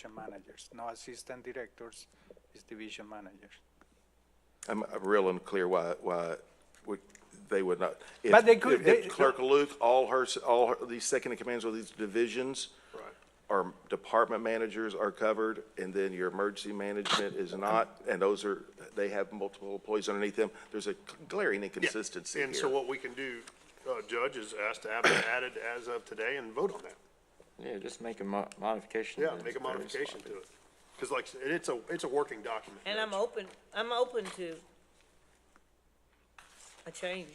division managers, no assistant directors, it's division managers. I'm, I'm real unclear why, why we, they would not. if- But they could- if- if they- Clerk Luke, all her, s- all her, these second in commands of these divisions. Or department managers are covered, and then your emergency management is not, and those are, they have multiple employees underneath them. There's a glaring inconsistency here. And so what we can do, uh, Judge, is ask to have it added as of today and vote on that. Yeah, just make a mo- modification. Yeah, to make a the various modification to lines. it. Because like, and it's a, it's a working document. And I'm Judge. open, I'm open to a change.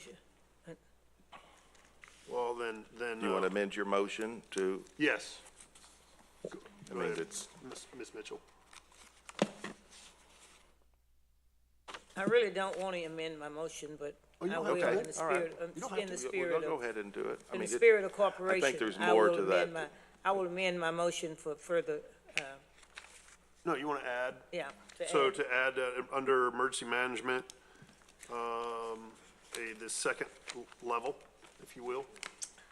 Well, then, then, You want to uh, amend your motion to, yes, I Go mean, ahead. it's, Ms. Ms. Mitchell. I really don't want to amend my motion, but Oh, you I don't will have in to. the all right. spirit, um, You don't have in the to. We'll spirit Go of, ahead and do it. I in the mean, it- spirit of cooperation. there's I more will to that. amend my- I will amend my motion for further, uh, No, you want to add, yeah. to so add. to add, uh, under emergency management, um, a, the second l- level, if you will,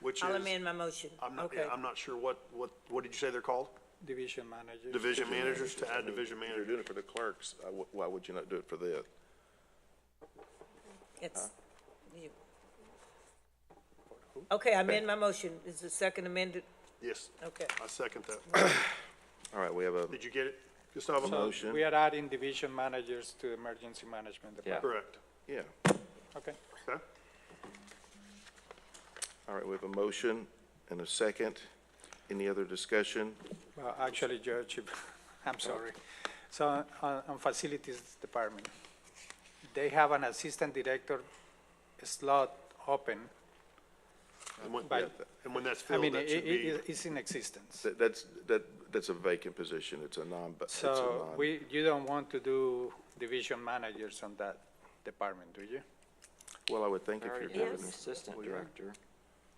which is. I'll amend my motion. I'm not, Okay. yeah, I'm not sure what, what, what did you say they're called? Division managers. Division managers, to add division You're manager. doing it for the clerks. Uh, wh- Why would you not do it for the? uh, It's, you. Okay, I amend my motion. Is the second amended? Yes, Okay. I second that. All right, we have a, Did you get it, Gustavo? So Motion. We are adding division managers to emergency management Yeah. department. Correct. yeah. Okay. Okay. All right, we have a motion and a second. Any other discussion? Well, actually, Judge, I'm sorry. So on, on facilities department, they have an assistant director slot open. And when, By- and when that's I filled, mean, that it, should be, it, it's in existence. That- That's, that, that's a vacant position. It's a non, it's a So non. we, you don't want to do division managers on that department, do you? Well, I would think I if you're already have doing, an assistant director.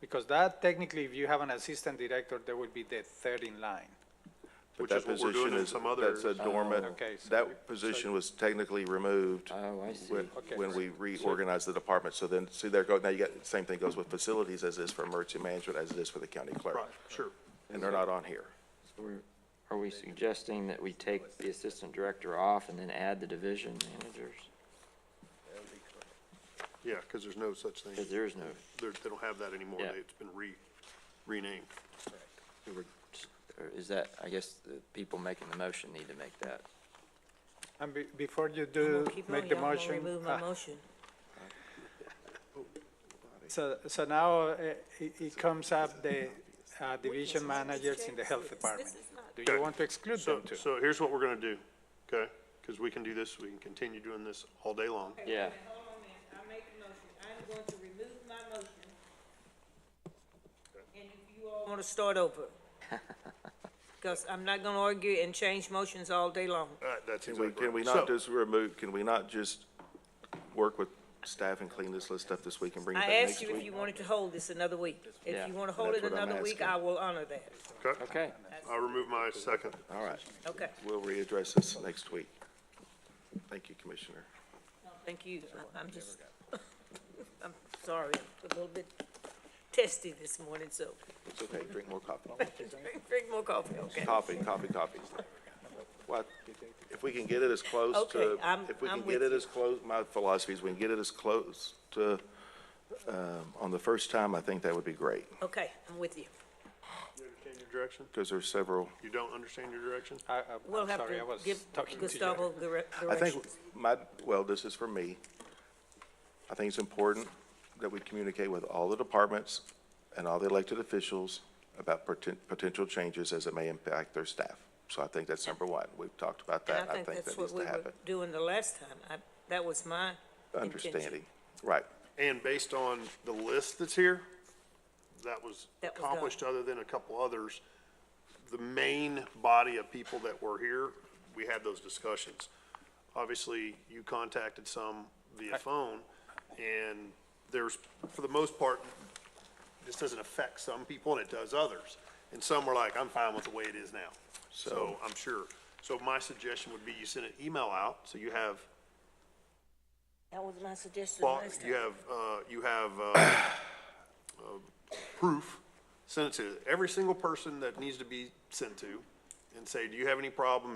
Because that technically, if you have an assistant director, there would be the third in line. but which that is what we're doing position in is, some Oh, that's a others. dormant. Okay, so we- so- That position was technically removed Oh, I see. when, Okay. when we reorganized the department. So then, see, there go, now you got, same thing goes with facilities as is for emergency management, as it is for the county clerk. Right, sure. And they're not on here. So we're- Are we suggesting that we take the assistant director off and then add the division managers? Yeah, because there's no such thing. Because there is no, They're, they don't have that anymore. Yeah. It's been re, renamed. we were just- or is that, I guess, the people making the motion need to make that. And be, before you I'm gonna do keep on, make the y'all gonna motion. Remove my ah, motion. So, so now uh, it, it comes up the uh, division managers in the health department. Do you want to exclude So, them too? so here's what we're going to do, okay? Because we can do this, we can continue doing this all day long. Yeah. Hold on a minute, I make a motion, I'm going to remove my motion. And if you all. Want to start over. Because I'm not gonna argue and change motions all day long. All right, that's Can we, exactly can we right. not So- just remove, can we not just work with staff and clean this list up this week and bring it back I next asked week? you if you wanted to hold this another week. If Yeah, you want to hold it that's what I'm another week, asking. I will honor that. Okay, Okay, I'll remove my second. All right, Okay, we'll readdress this next week. Thank you, Commissioner. thank you. I- I'm just, I'm sorry, I'm a little bit testy this morning, so It's okay, drink more coffee. drink more coffee, okay? Coffee, coffee, coffee. What, if we can get it as close to, Okay, I'm- if we I'm can get with it as close, my philosophy is we can get it as close to, um, on the first time, I think that would be great, Okay, I'm with you. You understand your direction? because there's several. You don't understand your direction? I, I'm- We'll I'm have sorry, I to was give talking to you. Gustavo the re- I directions. think my, well, this is from me. I think it's important that we communicate with all the departments and all the elected officials about poten- potential changes as it may impact their staff. So I think that's number one. We've talked about that. And I think that's that what needs we to were happen. doing the last time. I, that was my Understanding, intention. right. And based on the list that's here, that was That was done. accomplished, other than a couple others, the main body of people that were here, we had those discussions. Obviously, you contacted some via phone, and there's, for the most part, this doesn't affect some people and it does others. And some were like, I'm fine with the way it is now. So I'm sure. So my suggestion would be you send an email out, so you have That was my suggestion well, last time. you have, uh, you have, uh, uh, proof, send it to every single person that needs to be sent to, and say, do you have any problem